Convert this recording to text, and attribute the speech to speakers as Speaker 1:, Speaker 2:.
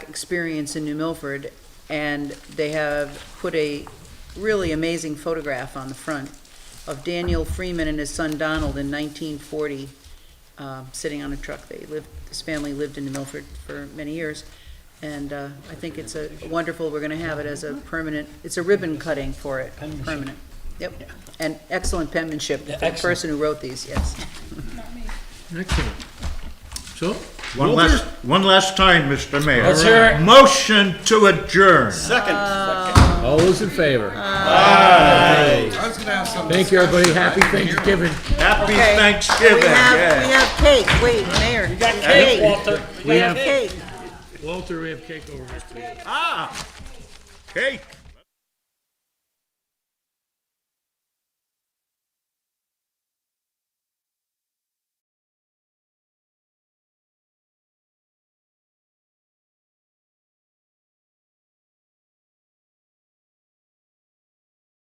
Speaker 1: experience in New Milford, and they have put a really amazing photograph on the front of Daniel Freeman and his son Donald in 1940, uh, sitting on a truck. They lived, this family lived in New Milford for many years, and uh, I think it's a wonderful, we're going to have it as a permanent, it's a ribbon cutting for it,
Speaker 2: Penmanship.
Speaker 1: permanent. Yep, and excellent penmanship,
Speaker 2: Yeah,
Speaker 1: the
Speaker 2: excellent.
Speaker 1: person who wrote these, yes.
Speaker 3: Excellent. So,
Speaker 4: One
Speaker 3: Well,
Speaker 4: last, one last time, Mr. Mayor.
Speaker 2: Let's hear it.
Speaker 4: Motion to adjourn.
Speaker 3: all those in favor? Aye. Thank you, everybody. Happy Thanksgiving.
Speaker 4: Happy
Speaker 1: Okay.
Speaker 4: Thanksgiving,
Speaker 1: We have, we
Speaker 4: yeah.
Speaker 1: have cake, wait, Mayor. We got
Speaker 2: Hey, Walter,
Speaker 3: We have,
Speaker 1: Cake.
Speaker 3: Walter, we have cake over here, please.
Speaker 4: Ah, cake.